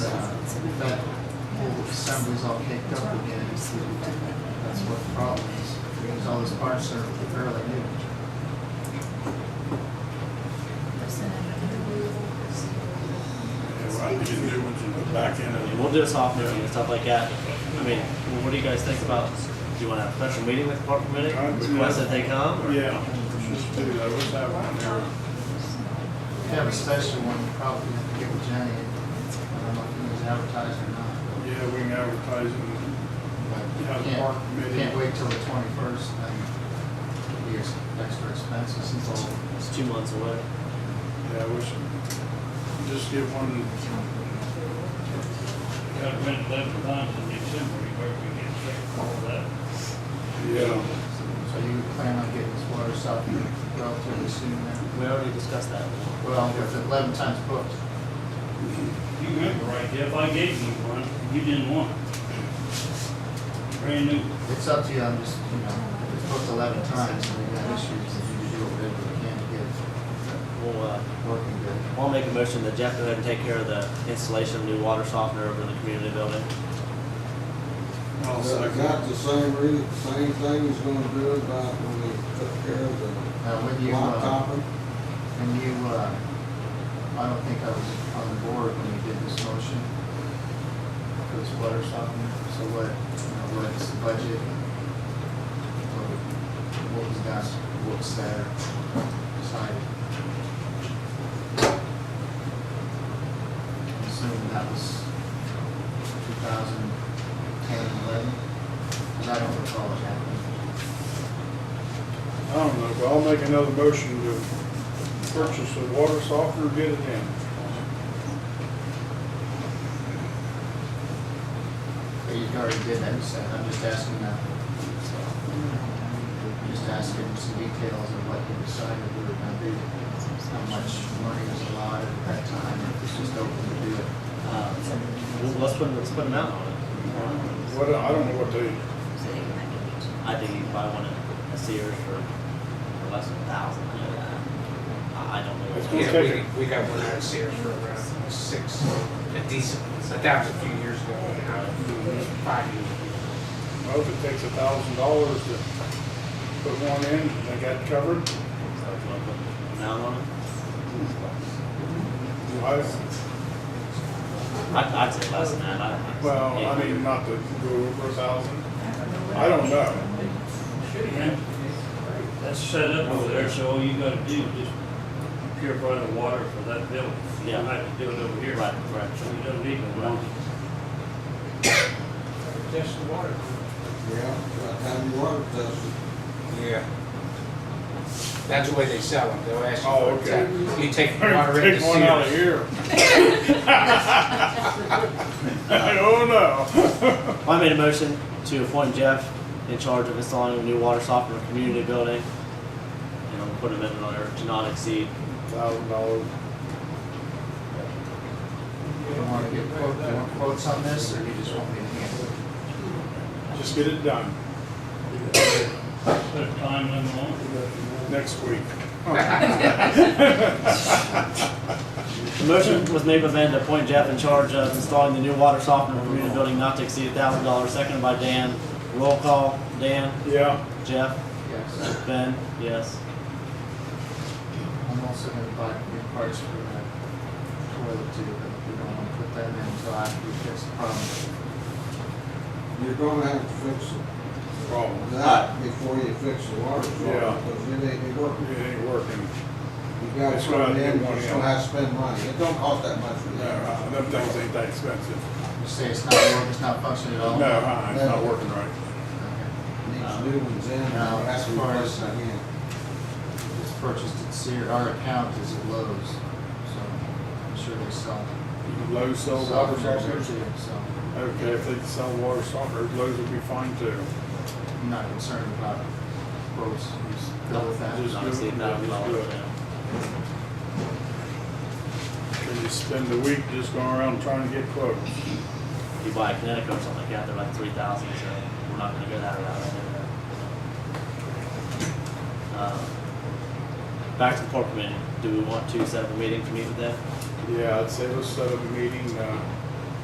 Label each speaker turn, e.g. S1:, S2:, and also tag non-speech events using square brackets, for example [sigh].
S1: that whole assembly's all caked up again, it's, that's what the problem is. Because all this barn stuff is fairly new.
S2: Yeah, Right, you can do ones in the back end
S3: And
S2: of
S3: we'll do a soft opening and stuff like that. I mean, well, what do you guys think about, do you want to have a special meeting with the park committee?
S2: Uh, we
S3: Request
S2: have-
S3: that they come?
S2: the.
S3: or-
S2: Yeah, let's just do that, what's that one there?
S1: If you have a special one, you probably have to get with Jenny, I don't know if it was advertised or not.
S2: Yeah, we can advertise it.
S1: but
S2: Yeah, the
S1: can't-
S2: park committee.
S1: Can't wait till the twenty-first, then it'd be ex- extra expensive since all,
S3: It's two months away.
S2: Yeah, we should just get one,
S4: Got rid of that bonds in December, you better get sick of all that.
S2: yeah,
S1: so you plan on getting this water stuff relatively soon then?
S3: We already discussed that.
S1: Well, with eleven times booked.
S4: You remember right, Jeff, I gave you one, you didn't want it. Brand new.
S1: It's up to you, I'm just, you know, it's booked eleven times, and we got issues, and you do whatever you can to get it
S3: We'll, uh,
S1: working good.
S3: I'll make a motion that Jeff go ahead and take care of the installation of new water softener over in the community building.
S2: I'll
S5: Is
S2: second.
S5: that the same re, same thing he's gonna do about when he took care of the
S1: Now, when you, uh,
S5: lot topping?
S1: when you, uh, I don't think I was on the board when you did this motion. It was water softener, so what, you know, what's the budget? What what was that, what's there decided? I'm Assuming that was two thousand ten, eleven, because I don't recall it happening.
S2: I don't know, but I'll make another motion to purchase a water softener, get it in.
S1: But you already did that, you said, I'm just asking that. I'm Just asking some details of what you decided we were gonna do, how much money was allotted at that time, or if it's just open to do it.
S3: Uh, we'll- Let's put, let's put an out on it.
S2: What, I don't know what they,
S3: I think you can buy one at Sears for for less than a thousand, I know that. I I don't know.
S2: It's
S3: what-
S2: gonna-
S6: Yeah, we, we got one out of Sears for around six, a decent one, but that was a few years ago, now, five years ago.
S2: well, if it takes a thousand dollars to put one in, they got covered.
S3: So if you wanna put an out on it,
S2: I-
S3: I- I'd say less than that, I.
S2: Well, I mean, not to go over a thousand. I don't know.
S4: Yeah. That's set up over there, so all you gotta do is just purify the water for that building. You don't
S3: Yeah.
S4: have to do it over here.
S3: Right, right.
S4: So you don't need the bonds.
S6: Just the water.
S5: Yeah, that time you water tested.
S6: Yeah. That's the way they sell them, they'll ask
S2: Oh,
S6: you for
S2: okay.
S6: it. You take
S2: [laughs]
S6: the water into
S2: Take one out of
S6: Sears.
S2: here. Oh, no.
S3: I made a motion to appoint Jeff in charge of installing a new water softener in the community building. And I'll put him in there to not exceed.
S2: Thousand dollars.
S1: You wanna get quotes, you want quotes on this, or you just want me to handle it?
S2: Just get it done
S4: Put a time limit on it.
S2: next week.
S3: The motion was made by Van to appoint Jeff in charge of installing the new water softener in the community building not to exceed a thousand dollars, seconded by Dan. Roll call, Dan,
S2: Yeah,
S3: Jeff,
S1: Yes,
S3: Ben, yes.
S1: I'm also gonna buy new parts for that toilet too, but we don't wanna put that in until after we fix the problem.
S5: You're gonna have to fix it-
S2: problem.
S5: that before you fix the water
S2: Yeah.
S5: softener, because it ain't working.
S2: It ain't working.
S5: You gotta
S2: That's
S5: put
S2: right,
S5: it in,
S2: you want
S5: you
S2: it.
S5: still have to spend money. It don't cost that much for
S2: No,
S5: that.
S2: uh, them things ain't that expensive.
S1: You say it's not working, it's not functioning at
S2: No,
S1: all?
S2: uh, it's not working right.
S1: Okay.
S5: Needs new ones in, and
S1: Now,
S5: that's
S1: as far
S5: replaced
S1: as-
S5: again.
S1: It's purchased at Sears, our account is at Lowe's, so I'm sure they sell.
S2: Lowe's sells
S1: sell
S2: water
S1: them there
S2: softeners.
S1: too, So
S2: Okay, if they sell water softeners, Lowe's will be fine too.
S1: I'm not concerned about quotes, just go with that.
S2: Just
S3: Not
S2: do
S3: exceed
S2: it.
S3: a thousand dollars.
S2: Just do it. Can you spend the week just going around trying to get quotes?
S3: If You buy a Connecticut or something like that, they're like three thousand, so we're not gonna go that route. I know that. Um, Uh, Back to the park committee, do we want to set up a meeting to meet with them?
S2: Yeah, I'd say let's set up a meeting, uh,